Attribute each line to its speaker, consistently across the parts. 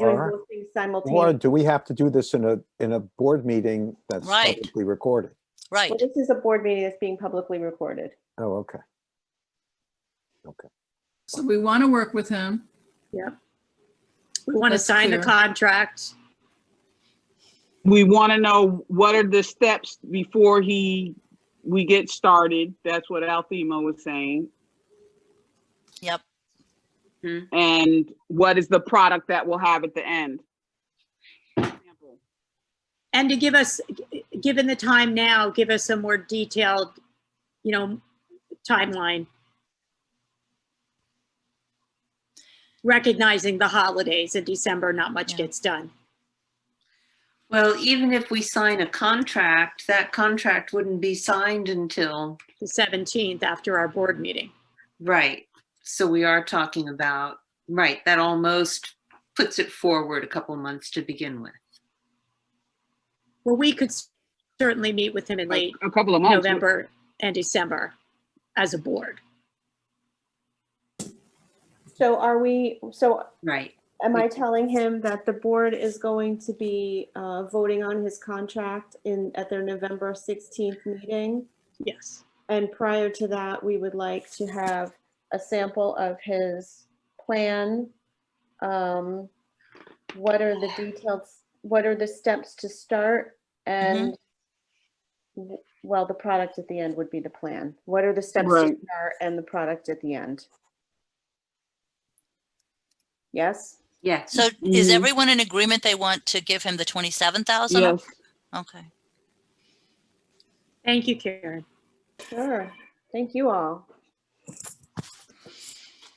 Speaker 1: doing
Speaker 2: Or-
Speaker 1: both things
Speaker 2: Or
Speaker 1: simultaneously.
Speaker 2: do we have to do this in a, in a board meeting that's
Speaker 3: Right.
Speaker 2: publicly recorded?
Speaker 3: Right,
Speaker 1: Well, this is a board meeting that's being publicly recorded.
Speaker 2: Oh, okay.
Speaker 4: So we want to work with him.
Speaker 5: We want to
Speaker 4: That's
Speaker 5: sign the
Speaker 4: clear.
Speaker 5: contract.
Speaker 6: We want to know what are the steps before he, we get started. That's what Althema was saying.
Speaker 3: yep.
Speaker 6: And what is the product that we'll have at the end?
Speaker 5: And to give us, g- given the time now, give us a more detailed, you know, timeline. Recognizing the holidays in December, not much
Speaker 3: Yeah.
Speaker 5: gets done.
Speaker 7: Well, even if we sign a contract, that contract wouldn't be signed until,
Speaker 5: The 17th after our board meeting.
Speaker 7: right. So we are talking about, right, that almost puts it forward a couple months to begin with.
Speaker 5: Well, we could certainly meet with him in
Speaker 6: Like
Speaker 5: late
Speaker 6: a couple of months.
Speaker 5: November and December as a board.
Speaker 1: So are we, so
Speaker 7: Right,
Speaker 1: am I telling him that the board is going to be uh, voting on his contract in, at their November 16th meeting?
Speaker 5: Yes.
Speaker 1: And prior to that, we would like to have a sample of his plan. Um, What are the details, what are the steps to start and
Speaker 4: Mm-hmm.
Speaker 1: w- well, the product at the end would be the plan. What are the steps to
Speaker 6: Right.
Speaker 1: start and the product at the end? Yes?
Speaker 7: yes.
Speaker 3: So is
Speaker 6: Mhm.
Speaker 3: everyone in agreement they want to give him the twenty-seven thousand?
Speaker 6: Yes,
Speaker 3: Okay,
Speaker 5: Thank you, Karen.
Speaker 1: Sure. Thank you all.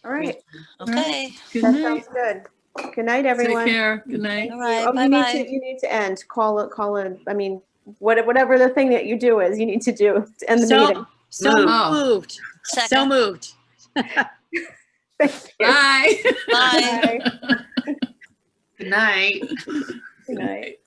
Speaker 1: All right,
Speaker 3: okay,
Speaker 4: Good
Speaker 1: that
Speaker 4: night.
Speaker 1: sounds good. Good night,
Speaker 4: Take
Speaker 1: everyone.
Speaker 4: care. Good night.
Speaker 3: all right,
Speaker 1: Oh, you need
Speaker 3: bye-bye.
Speaker 1: to, you need to end, call, it. call in, I mean, what- whatever the thing that you do is, you need to do, to end the meeting.
Speaker 5: So, so
Speaker 4: Move.
Speaker 5: moved, so
Speaker 3: Second,
Speaker 5: moved.
Speaker 1: Thank you.
Speaker 4: Bye.
Speaker 3: bye.
Speaker 1: Bye.
Speaker 7: Good night.
Speaker 1: Good night.